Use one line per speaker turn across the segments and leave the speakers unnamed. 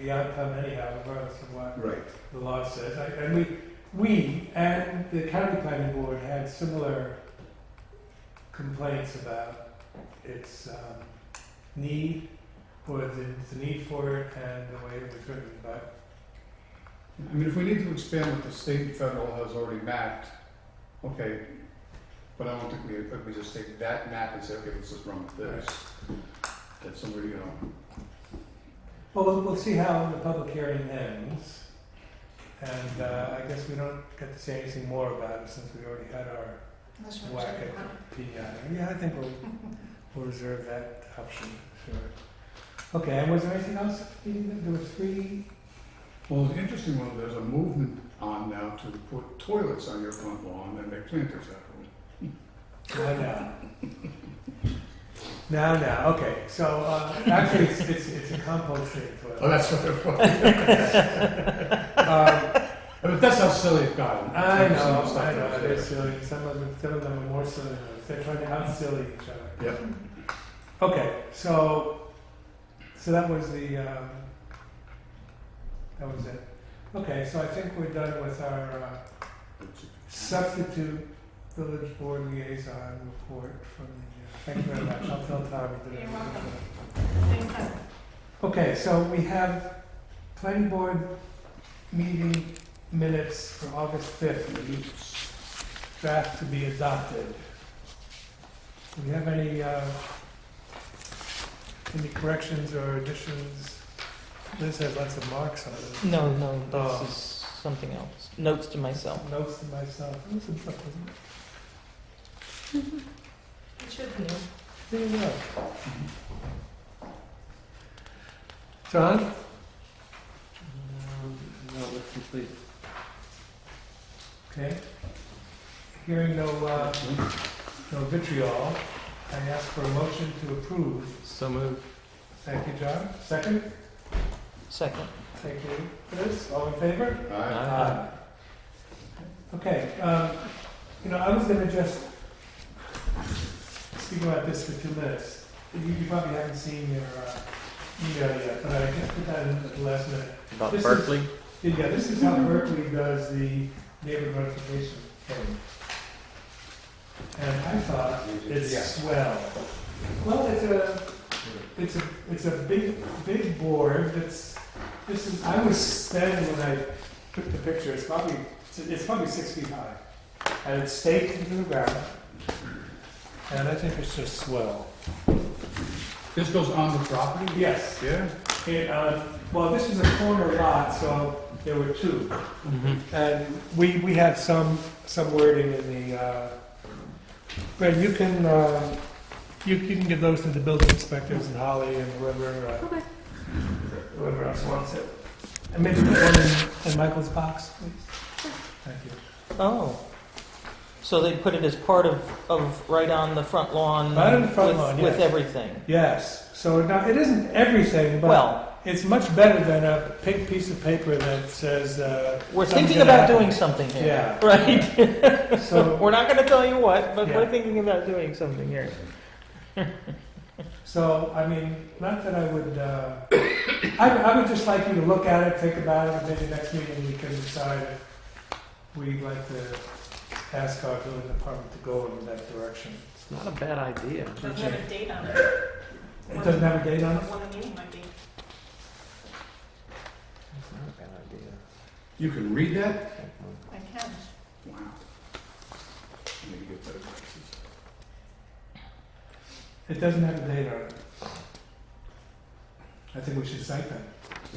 the outcome anyhow, regardless of what
Right.
the law says. I- And we, we and the county planning board had similar complaints about its um, need, or the, the need for it and the way it was written, but
I mean, if we need to expand what the state and federal has already mapped, okay, but I don't think we, if we just take that map and say, okay, let's just run with this. That's somewhere, you know,
Well, we'll, we'll see how the public hearing ends. And uh, I guess we don't get to say anything more about it since we already had our
Unless you want
whack
to check it out.
at the PI. Yeah, I think we'll, we'll reserve that option, sure. Okay, and was there anything else? There were three,
well, the interesting one, there's a movement on now to put toilets on your front lawn and make planters out of them.
no, no. No, no, okay, so uh, actually, it's, it's, it's a composting
Oh,
toilet.
that's what it was.
Um,
But that's how silly it got.
I
Some of
know,
the stuff
I
that
know,
was
they're
there.
silly, some of them, some of them are more silly than others, they're trying to out-silly each other.
Yep.
Okay, so so that was the um, that was it. Okay, so I think we're done with our uh, substitute village board liaison report from the. Uh, thank you very much. I'll tell Tommy that.
You're
everything.
welcome. Anytime.
Okay, so we have planning board meeting minutes for August fifth. Draft to be adopted. Do we have any, uh, any corrections or additions? This has lots of marks on it.
No, no,
Oh.
this is something else. Notes to myself.
Notes to myself. It was in stuff, wasn't it?
It should be.
Yeah.
There you go. John?
No, no, that's complete.
Okay. Hearing no, uh, no vitriol, I ask for a motion to approve.
So moved.
Thank you, John. Second?
Second.
Thank you, Chris. All in favor?
Aye.
Aye. Okay, um, you know, I was gonna just speak about this for two minutes. You you probably haven't seen your uh, email yet, but I just put that in at the last minute.
About
This is-
Berkeley?
Yeah, this is how Berkeley does the neighborhood notification thing. And I thought It's
Yeah.
swell. Well, it's a, it's a, it's a big, big board that's, this is, I was standing when I took the picture, it's probably, it's probably six feet high. And it's staked into the ground. And I think it's just swell.
This goes on the property?
Yes,
Yeah?
it, uh, well, this is a corner lot, so there were two.
Mm-hmm.
And we, we have some, some wording in the, uh, Brad, you can, uh, you, you can give those to the building inspectors and Holly and whoever, uh,
Okay.
whoever else wants it. And maybe put one in, in Michael's box, please. Thank you.
Oh. So they put it as part of, of right on the front lawn.
Right on the front
with,
lawn,
With
yes.
everything.
Yes, so now, it isn't everything, but
Well,
it's much better than a pink piece of paper that says, uh,
we're
something's
thinking
gonna
about
happen.
doing something here.
yeah.
Right?
So,
we're not going to tell you what, but
Yeah.
we're thinking about doing something here.
So, I mean, not that I would, uh, I, I would just like you to look at it, think about it, and maybe next meeting we can decide if we'd like to ask our building department to go in that direction.
It's not a bad idea.
Doesn't have a date on it.
It doesn't have a date on it?
One of you might be.
It's not a bad idea.
You can read that?
I can.
Wow. I need to get better glasses.
It doesn't have a date on it. I think we should cite that.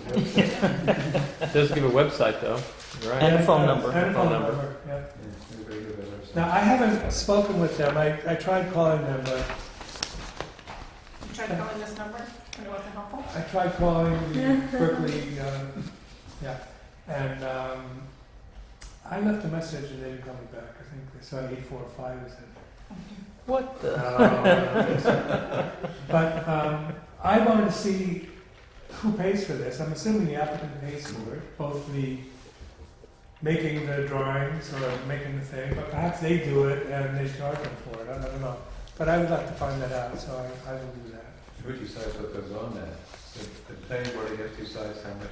It does give a website though, right?
And a phone
Yeah,
number.
And a phone
Phone number.
number, yeah.
Anybody got that website?
Now, I haven't spoken with them, I, I tried calling them, but
You tried calling this number and it wasn't helpful?
I tried calling the Berkeley, uh, yeah, and um, I left a message and they didn't call me back. I think they saw eight four five is it.
What the?
Uh, but um, I wanted to see who pays for this. I'm assuming the applicant pays for it, both the making the drawings or making the thing, but perhaps they do it and they charge them for it. I don't know, but I would like to find that out, so I, I will do that.
Who decides what goes on there? The, the planning board, I guess, decides how much